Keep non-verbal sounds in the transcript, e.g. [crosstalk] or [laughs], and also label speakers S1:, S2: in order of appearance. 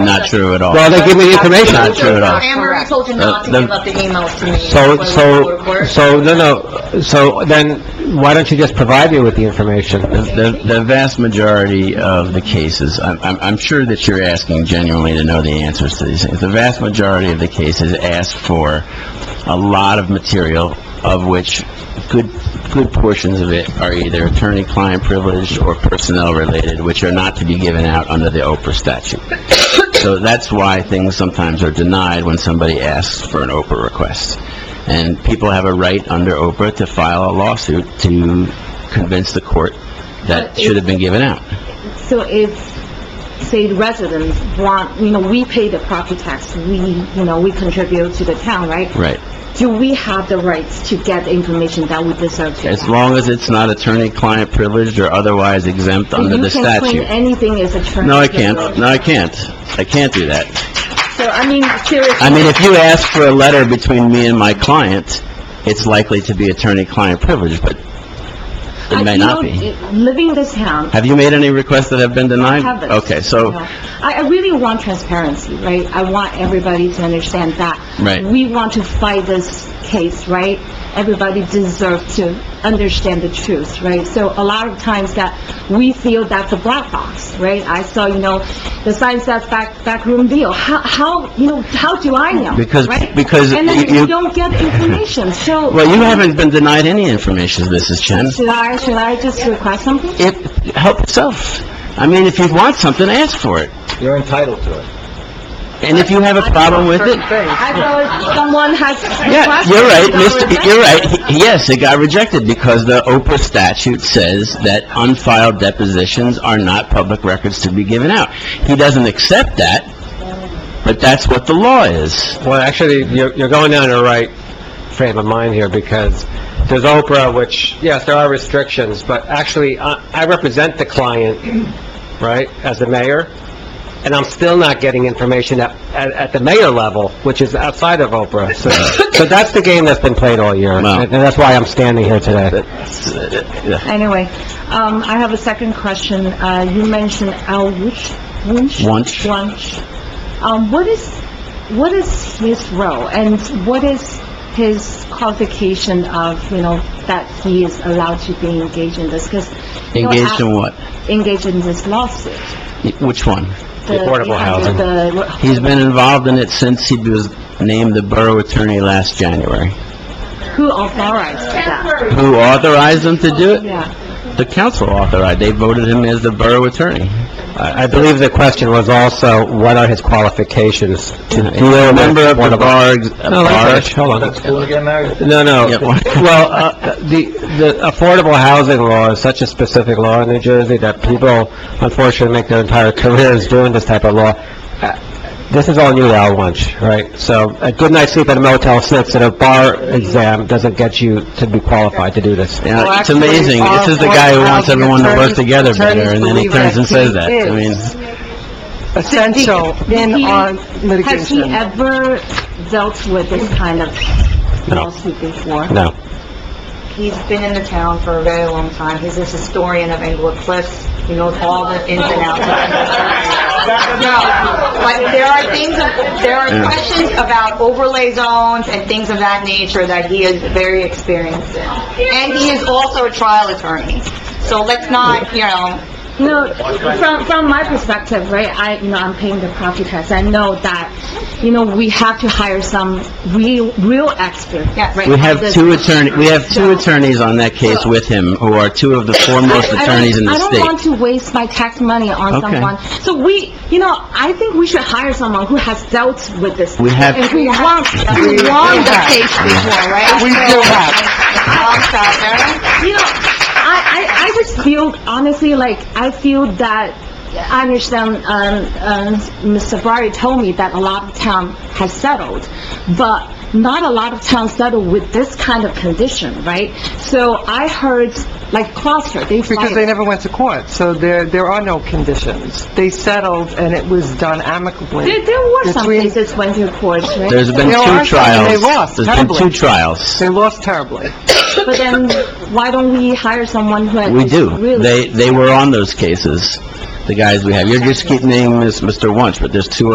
S1: not true at all.
S2: Well, they give me the information.
S1: Not true at all.
S3: Anne Marie told you not to
S2: Uh,
S3: give up the emails to me.
S2: So,
S3: when we go to
S2: so,
S3: work.
S2: so, no, no, so then, why don't you just provide me with the information?
S1: The, the- the vast majority of the cases, I'm, I'm, I'm sure that you're asking genuinely to know the answers to these things. The vast majority of the cases ask for a lot of material, of which good, good portions of it are either attorney-client privileged or personnel-related, which are not to be given out under the Oprah statute. So that's why things sometimes are denied when somebody asks for an Oprah request. And people have a right under Oprah to file a lawsuit to convince the court that should have been given out.
S4: So if, say, residents want, you know, we pay the property tax, we, you know, we contribute to the town, right?
S1: Right.
S4: Do we have the rights to get the information that we deserve to
S1: As
S4: get?
S1: long as it's not attorney-client privileged or otherwise exempt under the
S4: You can claim
S1: statute.
S4: anything is attorney.
S1: No, I can't. No, I can't. I can't do that.
S4: So, I mean, seriously.
S1: I mean, if you ask for a letter between me and my client, it's likely to be attorney-client privilege, but it may not
S4: I
S1: be.
S4: feel, uh, Living in this town,
S1: Have you made any requests that have been denied?
S4: haven't.
S1: Okay,
S4: you
S1: so,
S4: know, I, I really want transparency, right? I want everybody to understand that.
S1: Right.
S4: We want to fight this case, right? Everybody deserves to understand the truth, right? So a lot of times that we feel that's a black box, right? I saw, you know, the sign says back, backroom deal. How, how, you know, how do I know?
S1: Because-
S4: right?
S1: because
S4: And then
S1: you- you-
S4: you don't get information, so...
S1: [laughs] well, you haven't been denied any information, Mrs. Chen.
S4: Should I, should I just request something?
S1: It, help yourself. I mean, if you want something, ask for it.
S2: You're entitled to it.
S1: And if you have a problem with it,
S4: I thought someone has
S1: Yeah,
S4: requested...
S1: you're right,
S4: someone
S1: Mr.,
S4: rejected.
S1: you're right. He- Yes, it got rejected because the Oprah statute says that unfiled depositions are not public records to be given out. He doesn't accept that, but that's what the law is.
S2: Well, actually, you're, you're going down the right frame of mind here, because there's Oprah, which, yes, there are restrictions, but actually, I, I represent the client, right, as the mayor, and I'm still not getting information at, at, at the mayor level, which is outside of Oprah.
S1: [coughs]
S2: So, so that's the game that's been played all year, and
S1: Wow.
S2: and that's why I'm standing here today.
S4: Anyway, um, I have a second question. Uh, you mentioned Al Wunsch? Wunsch?
S1: Wunsch.
S4: Wunsch. Um, what is, what is his role and what is his qualification of, you know, that he is allowed to be engaged in this? Because, you know,
S1: Engaged in what?
S4: engaged in this lawsuit.
S1: Which one?
S4: The
S2: Affordable housing.
S4: The,
S1: He's been involved in it since he was named the borough attorney last January.
S4: who authorized that?
S1: Who authorized him to do it?
S4: Yeah.
S1: The council authorized. They voted him as the borough attorney.
S2: I I believe the question was also, what are his qualifications to
S1: He's
S2: deal
S1: a
S2: with
S1: member of the uh,
S2: affordable-
S1: bar,
S2: No,
S1: bar-
S2: that's- hold on.
S5: again now?
S2: No, no.
S1: Yeah.
S2: [laughs] Well, uh, the, the affordable housing law is such a specific law in New Jersey that people unfortunately make their entire careers doing this type of law. Uh, This is all new Al Wunsch, right? So a good night's sleep at a Motel 6 and a bar exam doesn't get you to be qualified to do this.
S1: You know, Uh, it's amazing. This is the guy who wants everyone to work together better, and then he turns and says that. I mean,
S6: essential
S4: Did
S6: in
S4: he-
S6: on
S4: Has he
S6: litigation.
S4: ever dealt with this kind of lawsuit before?
S2: No.
S3: He's been in the town for a very long time. He's a historian of Englewood Cliffs. He knows all the ins and outs. of it. No, but there are things, of- there are
S1: Yeah.
S3: questions about overlay zones and things of that nature that he is very experienced in. And he is also a trial attorney. So let's not, you know,
S4: No, from, from my perspective, right, I, you know, I'm paying the property tax, I know that, you know, we have to hire some real, real expert,
S3: Yes.
S4: right?
S1: we have
S4: This-
S1: two attorney, we have two attorneys on that case with him, who are two of the foremost
S4: I- I don't-
S1: attorneys in the
S4: I don't want
S1: state.
S4: to waste my tax money on
S1: Okay.
S4: someone. So we, you know, I think we should hire someone who has dealt with this.
S1: We have-
S4: And who wants,
S3: we
S4: who
S3: won
S4: wants
S3: the case before, right? We do
S4: Oh,
S3: have.
S4: you know, I, I, I just feel, honestly, like, I feel that, I understand, um, um, Mr. Sabari told me that a lot of town has settled, but not a lot of towns settle with this kind of condition, right? So I heard, like, Gloucester, they
S6: Because they
S4: fired.
S6: never went to court, so there, there are no conditions. They settled, and it was done amicably.
S4: There, there were some
S6: Between-
S4: cases went to court, right?
S1: There's been
S6: There
S1: two
S6: are some, and they
S1: trials.
S6: lost
S1: There's been two
S6: terribly.
S1: trials.
S6: They lost terribly.
S4: But then, why don't we hire someone who
S1: We
S4: has
S1: do.
S4: really
S1: They, they were on those cases, the guys we have. You're just keeping naming Mr. Wunsch, but there's two